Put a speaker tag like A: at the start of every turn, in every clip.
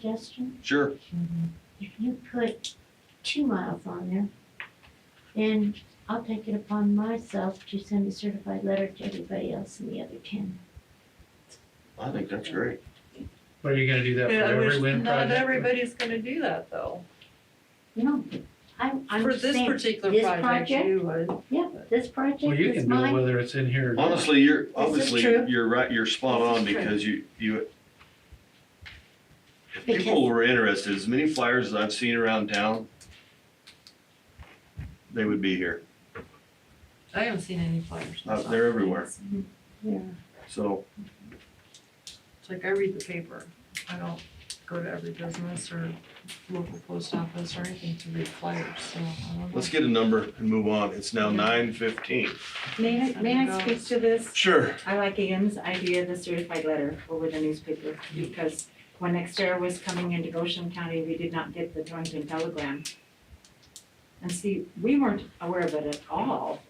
A: suggestion?
B: Sure.
A: If you put two miles on there, then I'll take it upon myself to send a certified letter to everybody else in the other ten.
B: I think that's great.
C: Are you gonna do that for
D: Yeah, I
C: every
D: wish,
C: wind
D: not
C: project?
D: everybody's gonna do that though.
A: You know, I'm, I'm
D: For
A: just
D: this
A: saying,
D: particular
A: this
D: project,
A: project?
D: you would.
A: this
C: Well,
A: project
C: you
A: is
C: can do it
A: mine.
C: whether it's in here or not.
B: Honestly, you're,
A: is
B: obviously,
A: true.
B: you're right, you're spot
A: This is
B: on
A: true.
B: because you, you, if
A: Because-
B: people were interested, as many flyers as I've seen around town, they would be here.
D: I haven't seen any flyers.
B: Uh, they're everywhere. So,
D: It's like I read the paper. I don't go to every business or local post office or anything to read flyers, so I don't know.
B: let's get a number and move on. It's now
D: Yeah.
B: nine fifteen.
E: May I, may I speak to this?
B: Sure.
E: I like Ian's idea of the certified letter over the newspaper, because when Xterra was coming into Goshen County, we did not get the Torrington telegram. And see, we weren't aware of it at all,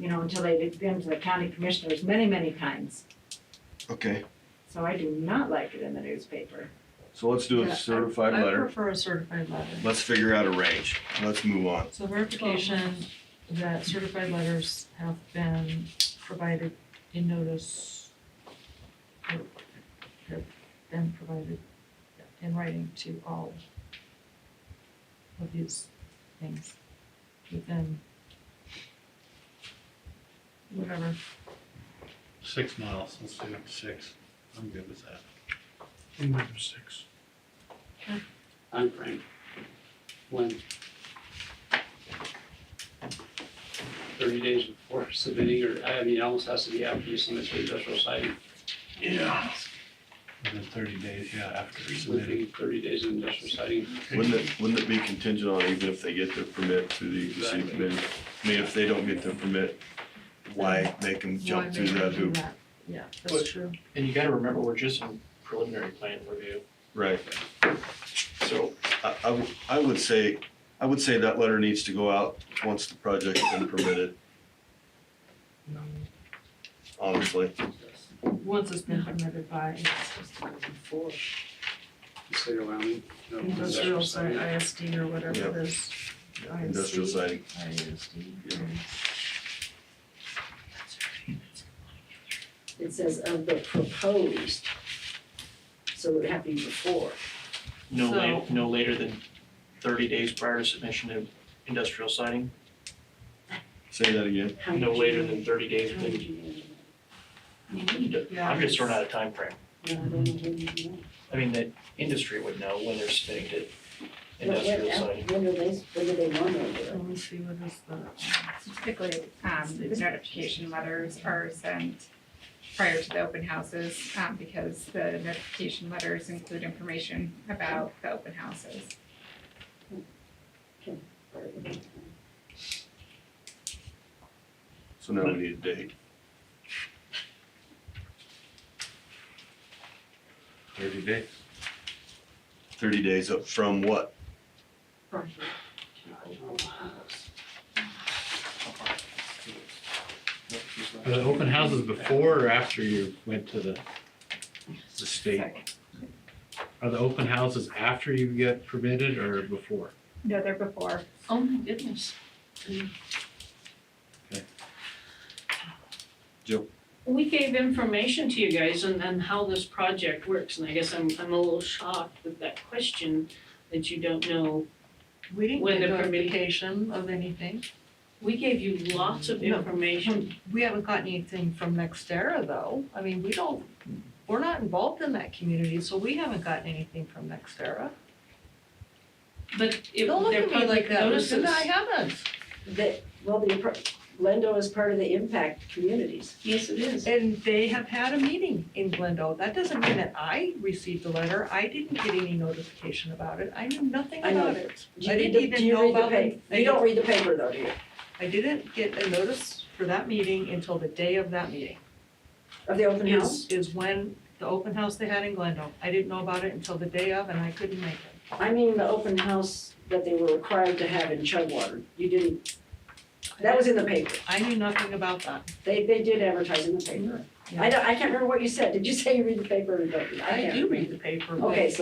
E: you know, until they had been to the county commissioners many, many times.
B: Okay,
E: So I do not like it in the newspaper.
B: so let's do
D: Yeah, I-
B: a certified
D: I
B: letter.
D: prefer a certified letter.
B: Let's figure out a range. Let's move on.
D: So verification that certified letters have been provided in notice. or Have been provided in writing to all of these things within whatever.
C: Six miles, let's do six. I'm good with that.
F: Six. I'm Frank. When? Thirty days before submitting, or, I mean, it almost has to be after you submit to industrial site. Yeah.
C: Within thirty days, yeah, after we submit it.
F: Within thirty days of industrial siting.
B: Wouldn't it, wouldn't it be contingent on even if they get their permit through the
F: Exactly.
B: EPC committee? I mean, if they don't get their permit, why make them
D: Why
B: jump through
D: make them
B: that
D: do
B: hoop?
D: that? Yeah,
G: But-
D: that's true.
G: And you gotta remember, we're just in preliminary plan review,
B: Right.
G: so
B: I, I w- I would say, I would say that letter needs to go out once the project's been permitted. Honestly,
D: Once it's been permitted by
F: Four. State of Wyoming. no,
D: industrial site,
F: siting.
D: ISD or whatever
B: Yeah.
D: it is. ISD.
B: industrial siding. Yeah.
H: It says of the proposed. So it would have to be before.
G: no
D: So-
G: later, no later than thirty days prior to submission of industrial siting,
B: Say that again.
H: How
G: no
H: would you-
G: later than thirty days.
H: how would you-
G: than- I'm just throwing out a time frame. I mean, the industry would know when they're submitting to
H: But
G: industrial
H: When
G: siting.
H: when do they, when do they want to do
D: Let me see what is the.
I: So typically, um, the notification letters are sent prior to the open houses, um, because the notification letters include information about the open houses.
H: it?
B: So now we need a date. Thirty days. Thirty days up from what?
C: Are the open houses before or after you went to the, the state?
I: Sorry.
C: Are the open houses after you get permitted or before?
I: No, they're before.
D: Oh my goodness.
J: We gave information to you guys on, on how this project works, and I guess I'm, I'm a little shocked with that question that you don't know.
D: We didn't
J: When the
D: get
J: permit-
D: notification of anything.
J: We gave you lots of
D: No.
J: information.
D: We haven't gotten anything from Nextera though. I mean, we don't, we're not involved in that community, so we haven't gotten anything from Nextera.
J: But if
D: Don't look
J: they're
D: at me like
J: public
D: that,
J: notices,
D: Lucinda, I haven't.
H: That, well, the, appro- Lendo is part of the impact communities.
J: yes, it is.
D: And they have had a meeting in Glendale. That doesn't mean that I received the letter. I didn't get any notification about it. I knew nothing
H: I know.
D: about it.
H: Do you
D: I
H: read
D: didn't
H: the-
D: even
H: do you
D: know
H: read the
D: about
H: pa-
D: them. I
H: You don't
D: don't-
H: read the paper though, do you?
D: I didn't get a notice for that meeting until the day of that meeting.
H: Of the open house?
D: is, is when the open house they had in Glendale. I didn't know about it until the day of and I couldn't make it.
H: I mean, the open house that they were required to have in Chugwater. You didn't, that was in the paper.
D: I knew nothing about that.
H: They, they did advertise in the paper. I don't, I can't remember what you said. Did you say you read the paper or don't you? I
D: I
H: can't
D: do
H: remember.
D: read the paper, but.
H: Okay, so